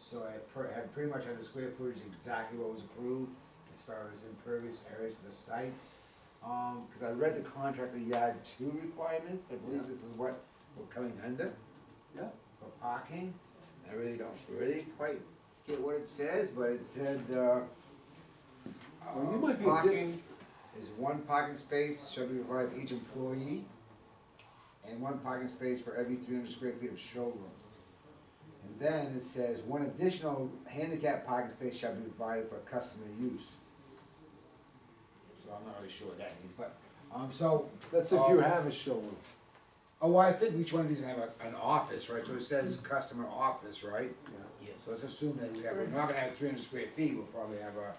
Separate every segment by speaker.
Speaker 1: So I pre- had pretty much had the square footage exactly what was approved as far as impervious areas for the site. Um, cause I read the contract, the yard two requirements, I believe
Speaker 2: Yeah.
Speaker 1: this is what we're coming under
Speaker 2: Yeah,
Speaker 1: for parking. I really don't, really quite get what it says, but it said, uh,
Speaker 2: Well, Oh,
Speaker 1: uh,
Speaker 2: you might be a diff-
Speaker 1: Parking is one parking space shall be provided for each employee, and one parking space for every three hundred square feet of showroom. And then it says, one additional handicap parking space shall be provided for customer use. So I'm not really sure what that means, but, um, so.
Speaker 2: that's if you
Speaker 1: um,
Speaker 2: have a showroom.
Speaker 1: Oh, well, I think each one of these have a, an office, right, so it says customer office, right?
Speaker 2: Yeah.
Speaker 3: Yes.
Speaker 1: So let's assume that we have, we're not gonna have three hundred square feet, we'll probably have a,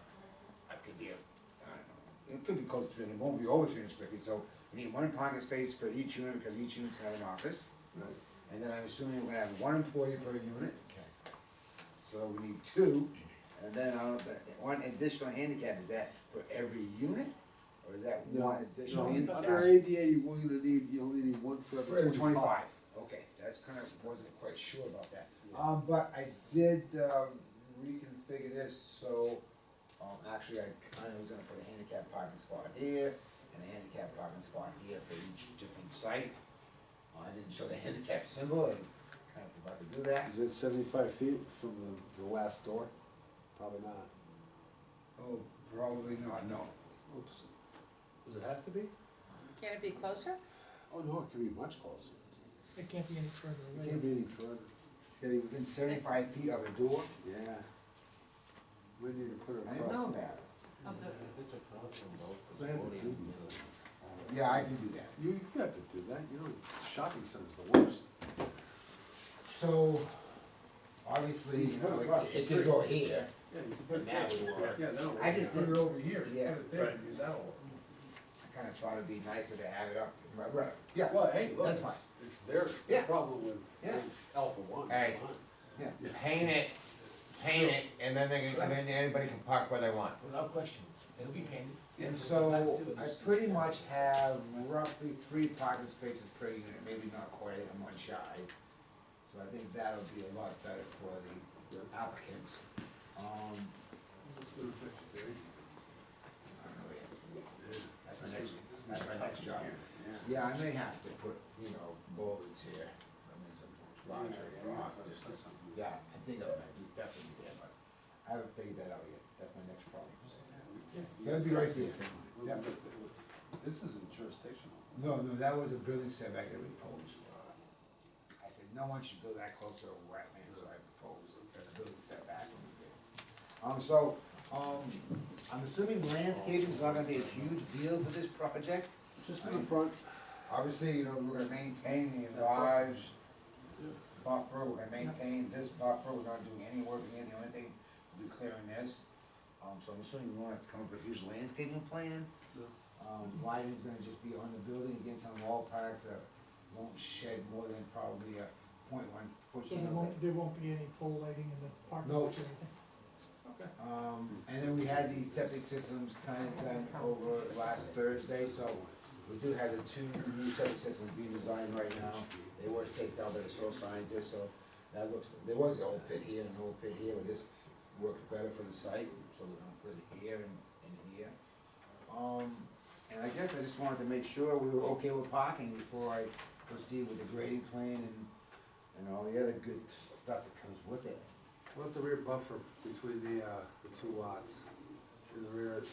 Speaker 1: it could be a, I don't know, it could be close to three hundred, it won't be over three hundred square feet, so we need one parking space for each unit, because each unit's gonna have an office.
Speaker 2: Right.
Speaker 1: And then I'm assuming we're gonna have one employee per unit. Okay. So we need two, and then I don't, know, that- one additional handicap, is that for every unit? Or is that
Speaker 2: No,
Speaker 1: one additional
Speaker 2: no,
Speaker 1: handicap?
Speaker 2: Under ADA, you only need, you only need one for
Speaker 1: For every
Speaker 2: every
Speaker 1: twenty-five,
Speaker 2: twenty-five.
Speaker 1: okay, that's kind of, wasn't quite sure about that.
Speaker 2: Yeah.
Speaker 1: Um, but I did, um, reconfigure this, so, um, actually, I kinda was gonna put a handicap parking spot here, and a handicap parking spot here for each different site. Uh, I didn't show the handicap symbol, I kind of forgot to do that.
Speaker 2: Is it seventy-five feet from the, the last door? Probably not.
Speaker 1: Oh, probably not, no.
Speaker 2: Oops.
Speaker 3: Does it have to be?
Speaker 4: Can it be closer?
Speaker 2: Oh, no, it could be much closer.
Speaker 3: It can't be any further
Speaker 2: It can't be any further.
Speaker 1: It's gonna be within seventy-five feet of a door,
Speaker 2: Yeah. We need to put it
Speaker 1: I
Speaker 2: across.
Speaker 1: didn't know that.
Speaker 5: Um,
Speaker 6: It's a problem though.
Speaker 2: So I had to do this.
Speaker 1: Yeah, I can do that.
Speaker 2: You, you have to do that, you know, shopping center's the worst.
Speaker 1: So, obviously, you know, it- it could go here.
Speaker 2: Yeah, you can
Speaker 1: put it- Now it would work.
Speaker 2: Yeah, that'll
Speaker 1: I just
Speaker 6: Put it
Speaker 1: didn't,
Speaker 6: over here, put
Speaker 1: Yeah.
Speaker 6: it there, and do that one.
Speaker 1: I kinda thought it'd be nicer to have it up, right, right, yeah,
Speaker 2: Well, hey, look,
Speaker 1: That's
Speaker 2: it's, it's their
Speaker 1: Yeah.
Speaker 2: problem with
Speaker 1: Yeah.
Speaker 2: with Alpha One.
Speaker 7: Hey.
Speaker 2: come on.
Speaker 7: paint it, paint it, and then they, can- and then anybody can park where they want.
Speaker 6: Without question, it'll be painted.
Speaker 1: and so, I pretty much have roughly three parking spaces per unit, maybe not quite, I'm one shy. So I think that'll be a lot better for the applicants, um, I don't know yet. That's my next, that's my next job. Yeah, I may have to put, you know, bollards here, I mean, some larger, rock, Yeah, I think I might do definitely do that, but I haven't figured that out yet, that's my next problem. That'd be right there. Yeah.
Speaker 2: This isn't jurisdictional.
Speaker 1: No, no, that was a building setback that we proposed. Uh, I said, no one should build that close to a wetland, so I proposed a building setback. when we did. Um, so, um, I'm assuming landscaping's not gonna be a huge deal for this project?
Speaker 2: Just in the front,
Speaker 1: Obviously, you know, we're gonna maintain the large buffer, we're gonna maintain this buffer, we're not doing any work again, the only thing, we'll be clearing this. Um, so I'm assuming we won't have to come up with a huge landscaping plan.
Speaker 2: No.
Speaker 1: Um, lighting's gonna just be on the building against some wall packs that won't shed more than probably a point one foot.
Speaker 5: So
Speaker 1: you
Speaker 5: there
Speaker 1: know,
Speaker 5: won't, there won't be any pole lighting in the park
Speaker 1: No.
Speaker 5: or anything?
Speaker 1: Um, and then we had the septic systems kind of done over last Thursday, so we do have the two new septic systems being designed right now. They were taken out by the soil scientist, so that looks, there was an old pit here and an old pit here, but this worked better for the site, so we're gonna put it here and, and here. Um, and I guess I just wanted to make sure we were okay with parking before I proceed with the grading plan and, and all the other good stuff that comes with it.
Speaker 2: what the rear buffer between the, uh, the two lots? In the rear.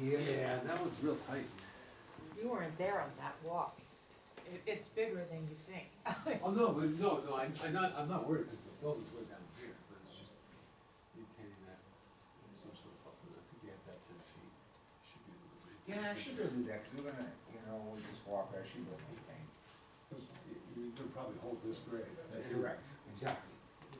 Speaker 1: Here?
Speaker 2: Yeah, that one's real tight.
Speaker 4: You weren't there on that walk. It, it's bigger than you think.
Speaker 2: Oh, no, but no, no, I'm, I'm not, I'm not worried, because the building's way down here, but it's just maintaining that, some sort of buffer, I think you have that ten feet, should be able to maintain.
Speaker 1: Yeah, I should be able to do that, we we're gonna, you know, we just walk, I should be able to maintain.
Speaker 2: Because you, you could probably hold this grade.
Speaker 1: Exactly.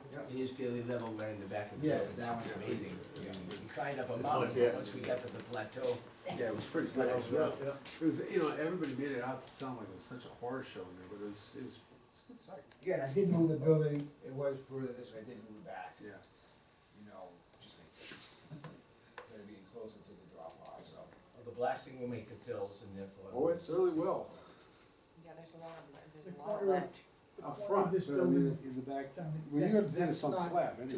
Speaker 1: Yep.
Speaker 6: It is fairly level right in the back of the
Speaker 1: Yes,
Speaker 6: building,
Speaker 1: that
Speaker 6: it's
Speaker 1: one.
Speaker 6: amazing.
Speaker 1: Yeah.
Speaker 6: We climbed up a mountain, but once we got to the plateau.
Speaker 2: Yeah, it was pretty
Speaker 6: That
Speaker 2: tight.
Speaker 6: was rough,
Speaker 2: It was, you know, everybody made it out to sound like it was such a horror show in there, but it was, it was, it's a good sight.
Speaker 1: Yeah, and I did move the building, it was further this way, I did move it back,
Speaker 2: Yeah.
Speaker 1: you know, just makes sense. Instead of being closer to the drop off, so.
Speaker 6: The blasting will make the fills and therefore.
Speaker 2: Oh, it certainly will.
Speaker 4: Yeah, there's a lot of,
Speaker 5: The
Speaker 4: there's a lot
Speaker 5: corner of-
Speaker 4: left.
Speaker 2: Up
Speaker 5: Well,
Speaker 2: front,
Speaker 5: this
Speaker 2: but I mean,
Speaker 5: building-
Speaker 2: in the back,
Speaker 5: Down the-
Speaker 2: well, you're gonna do
Speaker 5: that-
Speaker 2: this on
Speaker 5: that's not
Speaker 2: slab anyway.